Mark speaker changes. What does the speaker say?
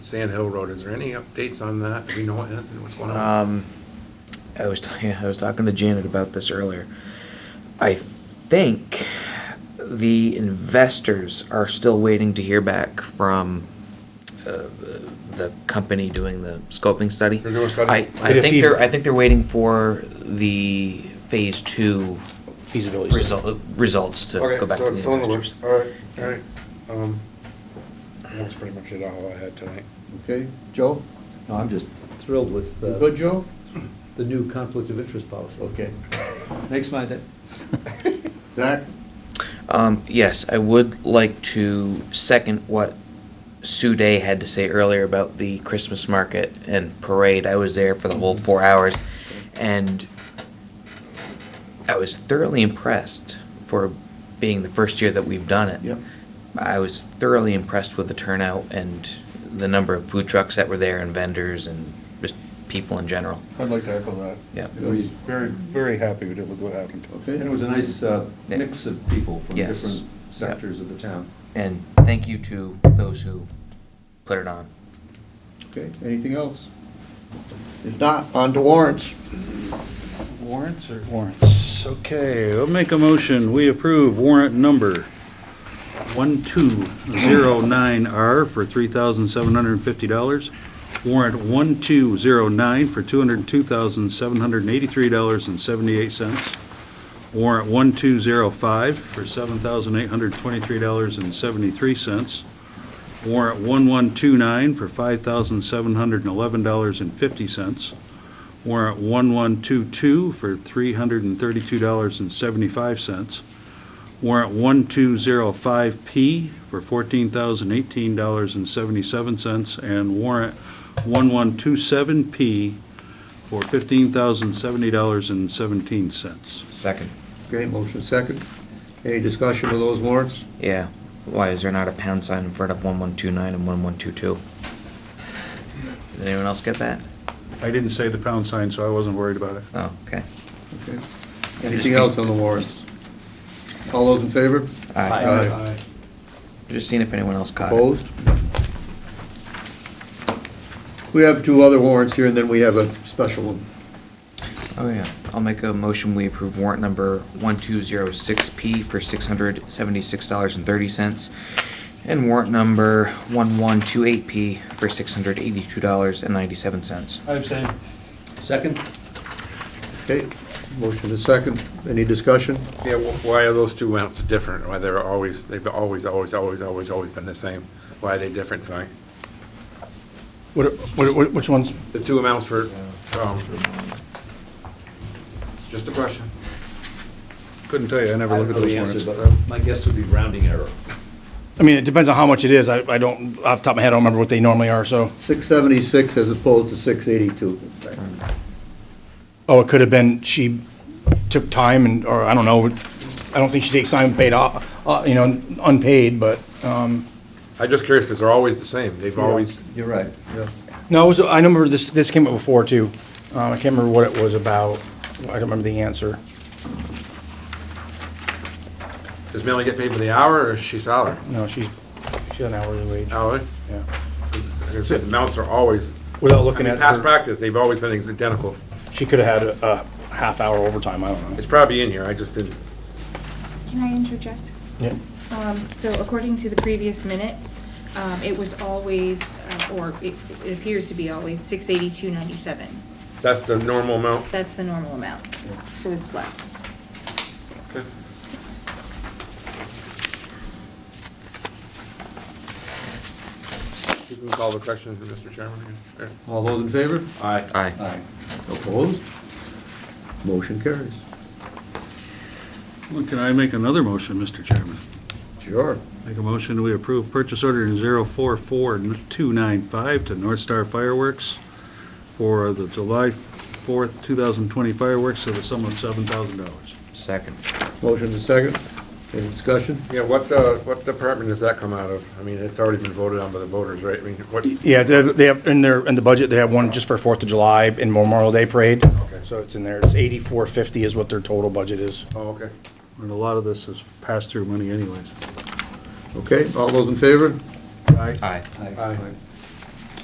Speaker 1: Sand Hill Road, is there any updates on that? Do we know anything, what's going on?
Speaker 2: Um, I was yeah, I was talking to Janet about this earlier. I think the investors are still waiting to hear back from uh, the company doing the scoping study.
Speaker 1: They're doing a study?
Speaker 2: I,
Speaker 3: Get
Speaker 2: I
Speaker 3: a
Speaker 2: think they're I
Speaker 3: feedback.
Speaker 2: think they're waiting for the phase two
Speaker 3: feasibility. study.
Speaker 2: result, results to
Speaker 1: Okay,
Speaker 2: go back
Speaker 1: so
Speaker 2: to
Speaker 1: it's
Speaker 2: the
Speaker 1: on the
Speaker 2: investors.
Speaker 1: works. All right, all right. Um, That was pretty much it all I had tonight.
Speaker 4: Okay, Joe?
Speaker 5: No, I'm just thrilled with
Speaker 4: You
Speaker 5: uh,
Speaker 4: Good, Joe?
Speaker 5: the new conflict of interest policy.
Speaker 4: Okay.
Speaker 5: Makes my day.
Speaker 4: Zach?
Speaker 2: Um, yes, I would like to second what Sue Day had to say earlier about the Christmas market and parade. I was there for the whole four hours, and I was thoroughly impressed for being the first year that we've done it.
Speaker 4: Yep.
Speaker 2: I was thoroughly impressed with the turnout and the number of food trucks that were there and vendors and just people in general.
Speaker 4: I'd like to echo that.
Speaker 2: Yeah.
Speaker 4: I was Very, very happy with it, with what happened. Okay.
Speaker 5: And it was a nice uh,
Speaker 2: Yeah.
Speaker 5: mix of people from
Speaker 2: Yes.
Speaker 5: different
Speaker 2: Yeah.
Speaker 5: sectors of the town.
Speaker 2: And thank you to those who put it on.
Speaker 4: Okay, anything else? If not, on to warrants.
Speaker 3: Warrants or?
Speaker 6: Warrants, okay, I'll make a motion, we approve warrant number 1209R for $3,750. Warrant 1209 for $202,783.78. Warrant 1205 for $7,823.73. Warrant 1129 for $5,711.50. Warrant 1122 for $332.75. Warrant 1205P for $14,018.77. And warrant 1127P for $15,070.17.
Speaker 2: Second.
Speaker 4: Okay, motion second. Any discussion of those warrants?
Speaker 2: Yeah. Why is there not a pound sign in front of 1129 and 1122? Did anyone else get that?
Speaker 6: I didn't say the pound sign, so I wasn't worried about it.
Speaker 2: Oh, okay.
Speaker 4: Okay. Anything else on the warrants? All those in favor?
Speaker 2: I
Speaker 4: Aye.
Speaker 1: Uh,
Speaker 2: Just seeing if anyone else caught it.
Speaker 4: Opposed? We have two other warrants here, and then we have a special one.
Speaker 2: Oh, yeah. I'll make a motion, we approve warrant number 1206P for $676.30. And warrant number 1128P for $682.97.
Speaker 3: I abstain.
Speaker 5: Second?
Speaker 4: Okay, motion is second. Any discussion?
Speaker 1: Yeah, wh- why are those two amounts different? Why they're always, they've always, always, always, always, always been the same? Why are they different tonight?
Speaker 3: What, what- what- which ones?
Speaker 1: The two amounts for, um, just a question.
Speaker 6: Couldn't tell you, I never
Speaker 5: I
Speaker 6: look
Speaker 5: don't
Speaker 6: at
Speaker 5: know the
Speaker 6: those
Speaker 5: answer,
Speaker 6: warrants.
Speaker 5: but uh, my guess would be rounding error.
Speaker 3: I mean, it depends on how much it is. I, I don't, off the top of my head, I don't remember what they normally are, so.
Speaker 4: 676 as opposed to 682.
Speaker 3: Oh, it could have been she took time and, or I don't know, I don't think she takes time paid off, uh, you know, unpaid, but, um,
Speaker 1: I'm just curious, because they're always the same. They've always,
Speaker 5: You're right.
Speaker 4: Yeah.
Speaker 3: no, it was, I remember this, this came up before too. Uh, I can't remember what it was about. I don't remember the answer.
Speaker 1: does Millie get paid for the hour or is she salary?
Speaker 3: No, she's, she's an hourly wage,
Speaker 1: Hourly?
Speaker 3: yeah.
Speaker 1: Like I said, the amounts are always,
Speaker 3: Without
Speaker 1: I
Speaker 3: looking
Speaker 1: mean,
Speaker 3: at
Speaker 1: past
Speaker 3: her,
Speaker 1: practice, they've always been identical.
Speaker 3: she could have had a, a half hour overtime, I don't know.
Speaker 1: It's probably in here, I just didn't.
Speaker 7: Can I interject?
Speaker 3: Yeah.
Speaker 7: Um, So according to the previous minutes, um, it was always, uh, or it it appears to be always, 682.97.
Speaker 1: That's the normal amount.
Speaker 7: That's the normal amount, so it's less.
Speaker 1: You can call the question, Mr. Chairman. Sure.
Speaker 4: All those in favor?
Speaker 1: Aye.
Speaker 2: Aye.
Speaker 5: Aye.
Speaker 4: Opposed? Motion carries.
Speaker 6: Well, Can I make another motion, Mr. Chairman?
Speaker 4: Sure.
Speaker 6: Make a motion, we approve purchase order 044295 to North Star Fireworks for the July 4th, 2020 fireworks at the sum of $7,000.
Speaker 2: Second.
Speaker 4: Motion is second. Any discussion?
Speaker 1: Yeah, what, uh, what department does that come out of? I mean, it's already been voted on by the voters, right? I mean, what,
Speaker 3: Yeah, they have- they have, in their, in the budget, they have one just for Fourth of July and Memorial Day Parade. So it's in there, it's eighty-four fifty is what their total budget is.
Speaker 1: oh, okay.
Speaker 6: And a lot of this is pass-through money anyways.
Speaker 4: Okay, all those in favor?
Speaker 6: Aye.
Speaker 2: Aye.
Speaker 1: Aye.